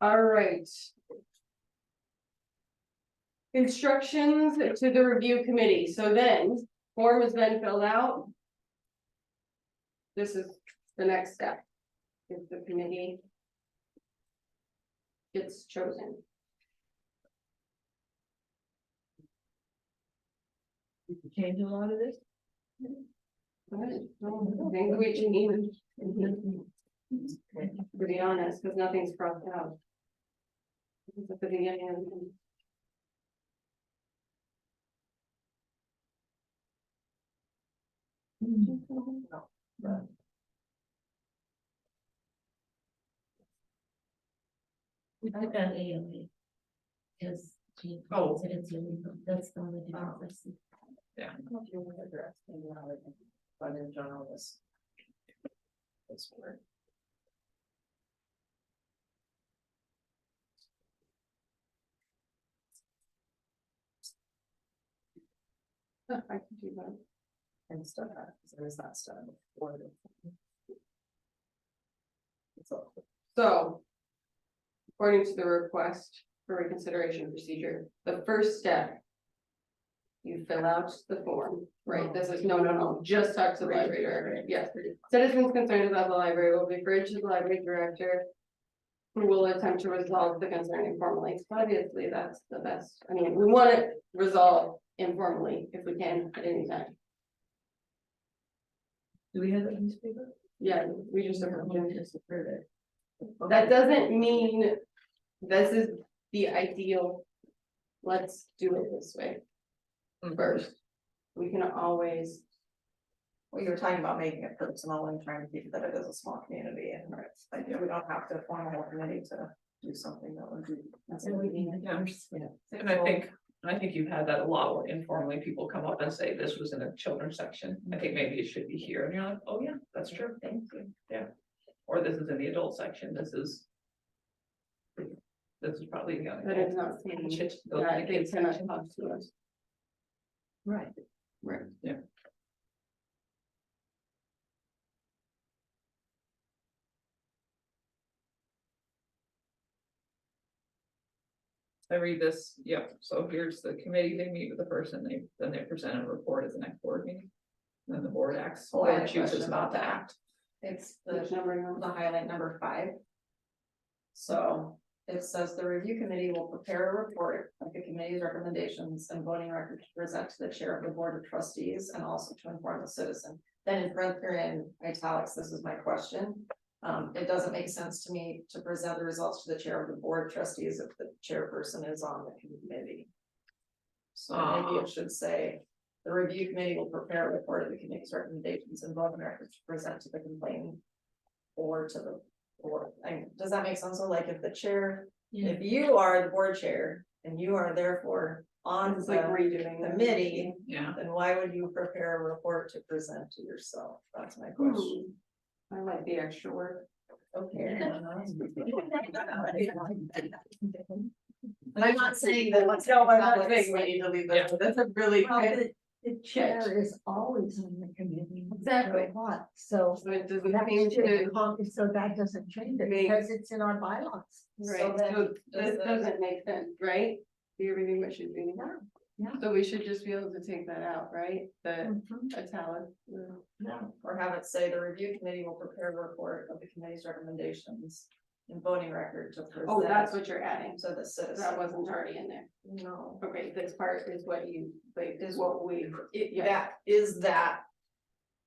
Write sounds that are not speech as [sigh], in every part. All right. Instructions to the review committee, so then, form has been filled out. This is the next step. If the committee. Gets chosen. Change a lot of this? Good. Well, I think we can even, to be honest, because nothing's crossed out. It's at the beginning. We took out AOA. Cause she Oh. considered it's illegal, that's the only difference. I don't know if you want to address the knowledge but in general, this. This word. [laughs] I can do that. and stuff, because there is that stuff. before the- It's all. So. According to the request for reconsideration procedure, the first step. You fill out the form, right? This is, no, no, no, just talk to the library director, yes. Citizens concerned about the library will be referred to the library director. Who will attempt to resolve the concern informally. Obviously, that's the best, I mean, we want it resolved informally if we can at any time. Do we have a newspaper? Yeah, we just. That That doesn't mean this is the ideal. Let's do it this way does first. We can always, Well, you were talking about making it personal and trying to keep that it is a small community and it's like, we don't have to form a whole committee to do something that would be. Yeah, Yeah. and I think, I think you've had that a lot where informally people come up and say, this was in a children's section, I think maybe it should be here, and you're like, oh yeah, that's true, thank you, yeah. Or this is in the adult section, this is. This is probably the but it's only. not saying Should go to that the they kids cannot section. talk to us. Right. Right. Yeah. I read this, yeah, so here's the committee, they meet with the person, they, then they present a report at the next board meeting. Then the board acts, Well, Oh, I had or a chooses question not about to that. act. It's Which number you're on? the highlight number five. So it says the review committee will prepare a report of the committee's recommendations and voting record to present to the chair of the board of trustees and also to inform the citizen. Then in front or in italics, this is my question. Um, it doesn't make sense to me to present the results to the chair of the board of trustees if the chairperson is on the committee. So Ah. maybe it should say, the review committee will prepare a report of the committee's recommendations and voting records to present to the complainant or to the board. I, does that make sense? So like if the chair, if you are the board chair and you are therefore on It's like the redoing uh, the committee, Yeah, then why would you prepare a report to present to yourself? That's my question. Hmm. I like the extra work. [laughs] Okay. [laughs] And I'm not saying that what's. No, I'm not saying we need to leave Yeah. that, that's a really. Well, kind of- The the chair is always on the committee. no matter Exactly. What, so So it doesn't that seem to, shouldn't con- so that doesn't change it Make- because it's in our bylaws. right, then so this does the- doesn't make sense, right? You're reading what should be. Yeah, yeah. So we should just be able to take that out, right? The Mhm. italic. No, Or have it say the review committee will prepare a report of the committee's recommendations and voting record to present. Oh, that's what you're adding. To the That citizen. wasn't already in there. No. Okay, this part is what you, like, is Is- what we, it, yeah, That is that.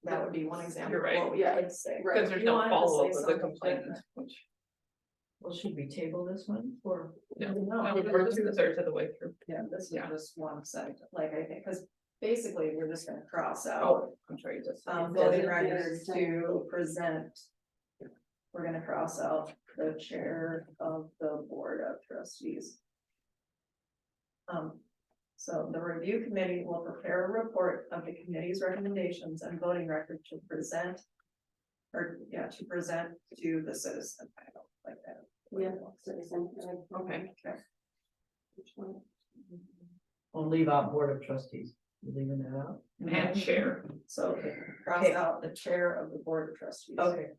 That would be one example You're of right. what we Yeah. could say. Right. because there's You wanted no to follow-up say with the something complainant, different. which, Well, should we table this one or? Yeah. Oh, no, we're two thirds of the way through. Yeah, this is Yeah. just one side, like I think, because basically we're just gonna cross out Oh, I'm sure you just. It um doesn't voting records make to present. We're gonna cross out the chair of the board of trustees. Um, so the review committee will prepare a report of the committee's recommendations and voting record to present. Or, yeah, to present to the citizen, I don't like that. yeah, citizen, uh, okay. Okay. Which one? We'll leave out board of trustees, You leaving that out? And share. So cross out the chair of the board of trustees. Okay.